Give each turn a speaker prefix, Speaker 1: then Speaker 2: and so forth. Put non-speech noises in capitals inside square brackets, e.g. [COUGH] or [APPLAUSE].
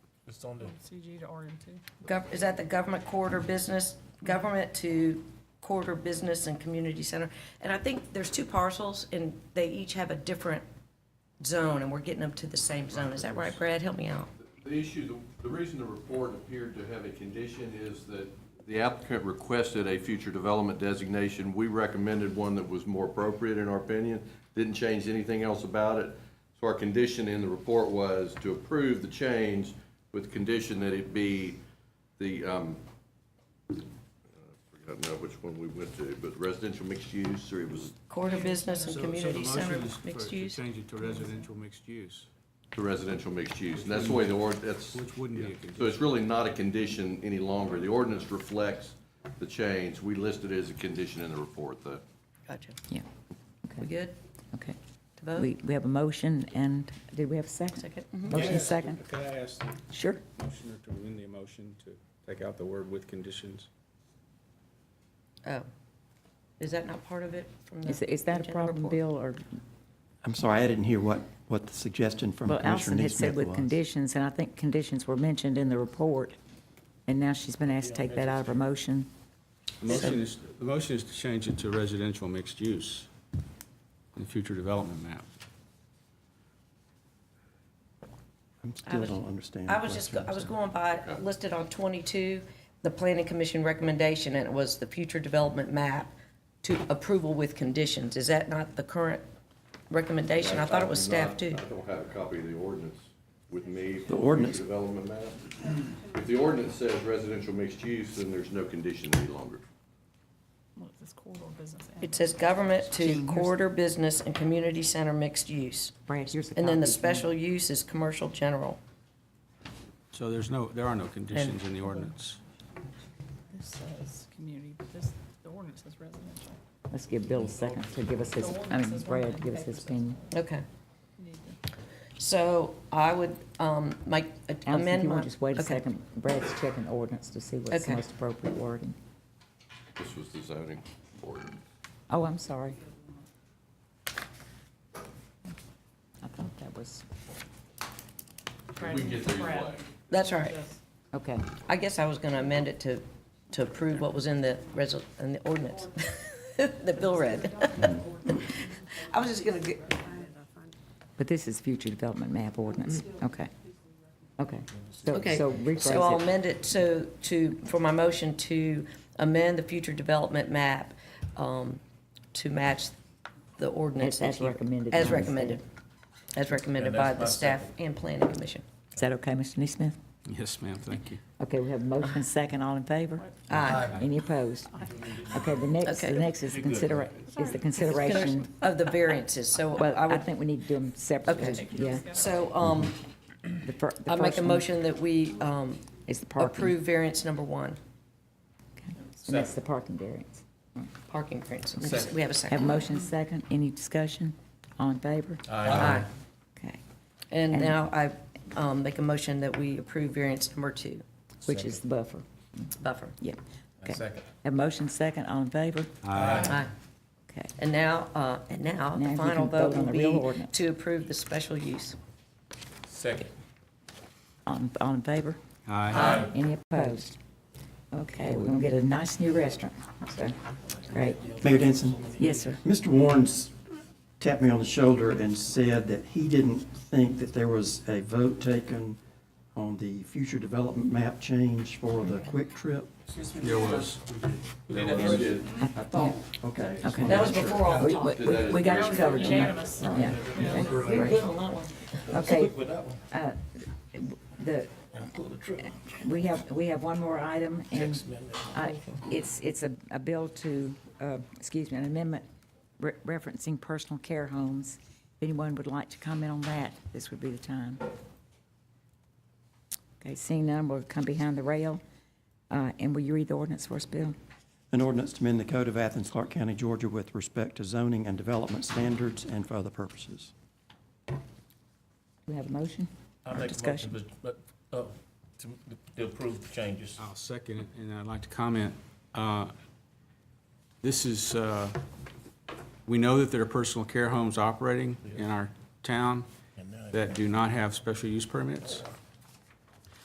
Speaker 1: It's on the,
Speaker 2: CG to RM2.
Speaker 3: Gov- Is that the government corridor business, government to corridor business and community center? And I think there's two parcels, and they each have a different zone, and we're getting them to the same zone. Is that right, Brad? Help me out.
Speaker 4: The issue, the- the reason the report appeared to have a condition is that the applicant requested a future development designation. We recommended one that was more appropriate in our opinion, didn't change anything else about it. So our condition in the report was to approve the change with the condition that it be the, um, I don't know which one we went to, but residential mixed use, or it was
Speaker 3: Corridor business and
Speaker 5: So- so the
Speaker 3: community
Speaker 5: motion
Speaker 3: center,
Speaker 5: is for-
Speaker 3: mixed
Speaker 5: to
Speaker 3: use?
Speaker 5: Change it to residential mixed use,
Speaker 4: the residential mixed use. And that's the way the, ord- that's.
Speaker 5: which wouldn't be a
Speaker 4: So
Speaker 5: condition.
Speaker 4: it's really not a condition any longer. The ordinance reflects the change. We list it as a condition in the report, though.
Speaker 3: Gotcha.
Speaker 6: Yeah,
Speaker 3: We good
Speaker 6: okay.
Speaker 3: to vote?
Speaker 6: We, we have a motion and, did we have a second?
Speaker 3: Second? Mm-hmm.
Speaker 6: Motion second,
Speaker 7: Could I ask the
Speaker 6: sure.
Speaker 7: motioner to amend the motion to take out the word with conditions?
Speaker 3: Oh. Is that not part of it from the?
Speaker 6: Is, is that a
Speaker 3: agenda
Speaker 6: problem,
Speaker 3: report?
Speaker 6: Bill, or,
Speaker 8: I'm sorry, I didn't hear what, what the suggestion from
Speaker 6: well, Allison
Speaker 8: Commissioner
Speaker 6: had said
Speaker 8: Neesmith
Speaker 6: with
Speaker 8: was.
Speaker 6: conditions, and I think conditions were mentioned in the report, and now she's been asked to take that out of her motion.
Speaker 7: The motion is, the motion is to change it to residential mixed use in the future development map.
Speaker 8: I
Speaker 3: I
Speaker 8: still
Speaker 3: was-
Speaker 8: don't understand.
Speaker 3: I
Speaker 8: the
Speaker 3: was just, go-
Speaker 8: question.
Speaker 3: I was going by, listed on twenty-two, the planning commission recommendation, and it was the future development map to approval with conditions. Is that not the current recommendation? I thought it was staff too.
Speaker 4: I don't have a copy of the ordinance with me. for
Speaker 8: The ordinance-
Speaker 4: future Development map. If the ordinance says residential mixed use, then there's no condition any longer.
Speaker 2: What is this corridor business? app?
Speaker 3: It says government to corridor business and community center mixed use.
Speaker 6: Brad, here's the
Speaker 3: And then the
Speaker 6: copy.
Speaker 3: special use is commercial general.
Speaker 7: So there's no, there are no conditions in the ordinance.
Speaker 2: This says community, but this, the ordinance says residential.
Speaker 6: Let's give Bill a second to give us his,
Speaker 2: The
Speaker 6: I
Speaker 2: ordinance
Speaker 6: mean,
Speaker 2: is one
Speaker 6: Brad,
Speaker 2: thing,
Speaker 6: give us his
Speaker 2: papers is-
Speaker 6: opinion.
Speaker 3: Okay,
Speaker 2: You need to-
Speaker 3: so I would, um, make a-
Speaker 6: Allison, if
Speaker 3: amend
Speaker 6: you
Speaker 3: my.
Speaker 6: want, just wait a
Speaker 3: okay.
Speaker 6: second, Brad's checking ordinance to see what's the
Speaker 3: Okay.
Speaker 6: most appropriate wording.
Speaker 4: This was the zoning ordinance.
Speaker 6: Oh, I'm sorry. I thought that was,
Speaker 4: If We can get there either way.
Speaker 3: That's all right.
Speaker 2: Yes.
Speaker 6: okay,
Speaker 3: I guess I was going to amend it to, to approve what was in the resol, in the ordinance [LAUGHS] that Bill read. [LAUGHS] I was just going to,
Speaker 6: but this is future development map ordinance, okay. Okay, so,
Speaker 3: Mm-hmm. okay.
Speaker 6: so
Speaker 3: So I'll
Speaker 6: rephrase it.
Speaker 3: amend it so to, for my motion to amend the future development map um, to match the ordinance.
Speaker 6: As- as
Speaker 3: that he-
Speaker 6: recommended
Speaker 3: As
Speaker 6: by the
Speaker 3: recommended. As recommended
Speaker 1: Yeah,
Speaker 3: by
Speaker 1: that's
Speaker 3: the
Speaker 1: my
Speaker 3: staff
Speaker 1: second.
Speaker 3: and planning commission.
Speaker 6: Is that okay, Mr. Neesmith?
Speaker 7: Yes, ma'am, thank you.
Speaker 6: Okay, we have a motion and second, all in favor?
Speaker 3: Aye.
Speaker 6: Any opposed? Okay, the next, the
Speaker 3: Okay.
Speaker 6: next is consider, is the consideration,
Speaker 3: Of the variances, so
Speaker 6: well,
Speaker 3: I
Speaker 6: I
Speaker 3: would,
Speaker 6: think we need to do them separately,
Speaker 3: Okay.
Speaker 6: yeah.
Speaker 3: so um,
Speaker 6: The fir- the
Speaker 3: I make
Speaker 6: first
Speaker 3: a
Speaker 6: one
Speaker 3: motion that we um,
Speaker 6: Is the parking,
Speaker 3: approve variance number one.
Speaker 6: Okay. and that's the parking variance.
Speaker 3: Parking variance. We have a
Speaker 6: Have a
Speaker 3: second.
Speaker 6: motion and second, any discussion? All in favor?
Speaker 3: Aye.
Speaker 6: Okay,
Speaker 3: And
Speaker 6: And-
Speaker 3: now I um, make a motion that we approve variance number two,
Speaker 6: which is the buffer,
Speaker 3: buffer.
Speaker 6: yeah. Okay.
Speaker 1: second.
Speaker 6: Have a motion second, all in favor?
Speaker 3: Aye.
Speaker 6: Okay,
Speaker 3: And now, uh, and now,
Speaker 6: Now
Speaker 3: the
Speaker 6: you
Speaker 3: final
Speaker 6: can vote
Speaker 3: vote
Speaker 6: on
Speaker 3: will
Speaker 6: the real
Speaker 3: be
Speaker 6: ordinance.
Speaker 3: to approve the special use.
Speaker 1: second.
Speaker 6: all, in- all in favor?
Speaker 7: Aye.
Speaker 6: Any opposed? Okay, we're gonna get a nice new restaurant, so, great.
Speaker 8: Mayor Denson,
Speaker 6: Yes, sir.
Speaker 8: Mr. Warren's tapped me on the shoulder and said that he didn't think that there was a vote taken on the future development map change for the quick trip.
Speaker 7: There was.
Speaker 4: We did.
Speaker 8: I thought, okay. I just
Speaker 6: Okay.
Speaker 8: wanted to
Speaker 3: That was
Speaker 8: make sure.
Speaker 3: before all the
Speaker 6: We,
Speaker 3: talk.
Speaker 6: we- we- we got you covered, Jim.
Speaker 2: Unanimous.
Speaker 6: Yeah.
Speaker 3: We were good on that one.
Speaker 6: Okay. Uh, The, we have, we have one more item, and I- it's, it's a, a bill to, uh, excuse me, an amendment re- referencing personal care homes. If anyone would like to comment on that, this would be the time. Okay, seeing none, we'll come behind the rail. Uh, And will you read the ordinance for us, Bill?
Speaker 8: An ordinance to amend the Code of Athens, Clark County, Georgia with respect to zoning and development standards and for other purposes.
Speaker 6: Do we have a motion?
Speaker 1: I
Speaker 6: or
Speaker 1: make a
Speaker 6: discussion?
Speaker 1: motion to, but, uh, to, to approve the changes.
Speaker 3: Oh.
Speaker 5: I'll second it, and I'd like to comment. uh, This is, uh, we know that there are personal
Speaker 1: uh,
Speaker 5: care homes operating in our town that do not have special use permits.